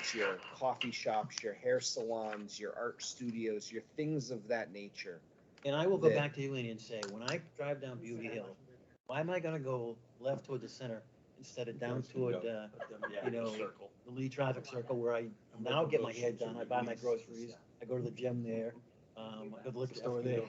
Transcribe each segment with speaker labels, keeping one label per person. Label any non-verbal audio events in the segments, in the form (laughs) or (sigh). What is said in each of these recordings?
Speaker 1: restaurants, your coffee shops, your hair salons, your art studios, your things of that nature.
Speaker 2: And I will go
Speaker 1: Yeah.
Speaker 2: back to you, Andy, and say, when I drive down Beauty Hill, why am I gonna go left toward the center instead of down toward, uh, you know, the Lee traffic circle where I now get my head done, I buy my groceries, I go to the gym there, um, I go to the liquor store there.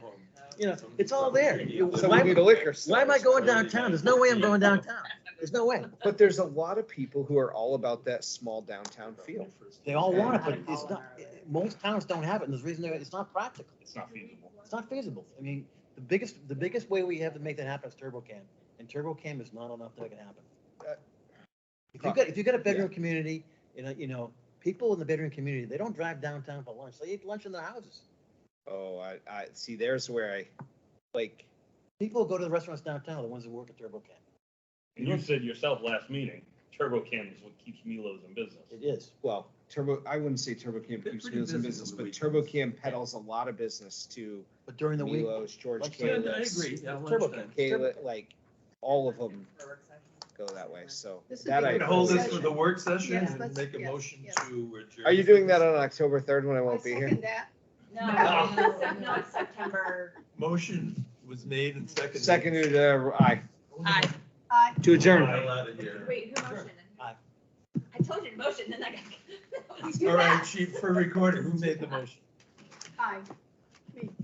Speaker 2: You know, it's all there. You-
Speaker 1: So
Speaker 2: why-
Speaker 1: we need a liquor store.
Speaker 2: Why am I going downtown? There's no way I'm going downtown. There's no way.
Speaker 1: But there's a lot of people who are all about that small downtown feel.
Speaker 2: They all want it, but it's not, most towns don't have it, and there's a reason, they- it's not practical.
Speaker 3: It's not feasible.
Speaker 2: It's not feasible. I mean, the biggest, the biggest way we have to make that happen is turbo cam, and turbo cam is not enough to make it happen.
Speaker 1: Uh,
Speaker 2: If you got, if you got a bedroom community, you know, you know, people in the bedroom community, they don't drive downtown for lunch. They eat lunch in their houses.
Speaker 1: Oh, I, I, see, there's where I, like,
Speaker 2: People go to the restaurants downtown, the ones that work at turbo cam.
Speaker 3: And you said yourself last meeting, Turbo Can is what keeps Milos in business.
Speaker 2: It is.
Speaker 1: well, Turbo, I wouldn't say Turbo Cam
Speaker 4: They're
Speaker 1: keeps
Speaker 4: pretty
Speaker 1: meals in
Speaker 4: busy
Speaker 1: business,
Speaker 4: on the
Speaker 1: but Turbo
Speaker 4: weekends.
Speaker 1: Cam peddles a lot of business to
Speaker 2: But during the week,
Speaker 1: Milos, George
Speaker 2: Like,
Speaker 4: Yeah,
Speaker 2: yeah,
Speaker 1: K.
Speaker 4: I agree, yeah,
Speaker 2: Turbo
Speaker 4: lunchtime.
Speaker 2: King.
Speaker 1: Kayla, like, all of them go that way, so.
Speaker 5: This would
Speaker 1: that
Speaker 5: be
Speaker 1: I
Speaker 5: good
Speaker 4: We're gonna hold this for
Speaker 1: appreciate.
Speaker 4: the work session
Speaker 5: Yes,
Speaker 4: and
Speaker 5: let's-
Speaker 4: make a
Speaker 5: yes,
Speaker 4: motion
Speaker 5: yes.
Speaker 4: to adjourn.
Speaker 1: Are you doing that uh, on October third when I won't be
Speaker 5: I
Speaker 1: here?
Speaker 5: second that.
Speaker 1: (laughs)
Speaker 6: No,
Speaker 4: No.
Speaker 6: Sep- no, it's September.
Speaker 4: Motion was made and seconded.
Speaker 1: Seconded, uh, aye,
Speaker 6: I,
Speaker 5: I,
Speaker 1: to adjourn.
Speaker 4: Hell out of here.
Speaker 6: wait, who motioned?
Speaker 2: Aye.
Speaker 6: I told you to motion, then I got. (laughs)
Speaker 4: All right, chief, for recording, who made the motion?
Speaker 5: I,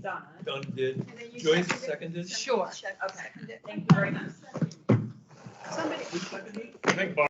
Speaker 6: Donna.
Speaker 4: Don did.
Speaker 5: and then you.
Speaker 4: Joyce
Speaker 5: second it.
Speaker 4: seconded?
Speaker 6: Sure.
Speaker 5: Second,
Speaker 6: Okay.
Speaker 5: second it.
Speaker 6: Thank you very much.
Speaker 5: Somebody.
Speaker 4: Who seconded?
Speaker 3: I think Bob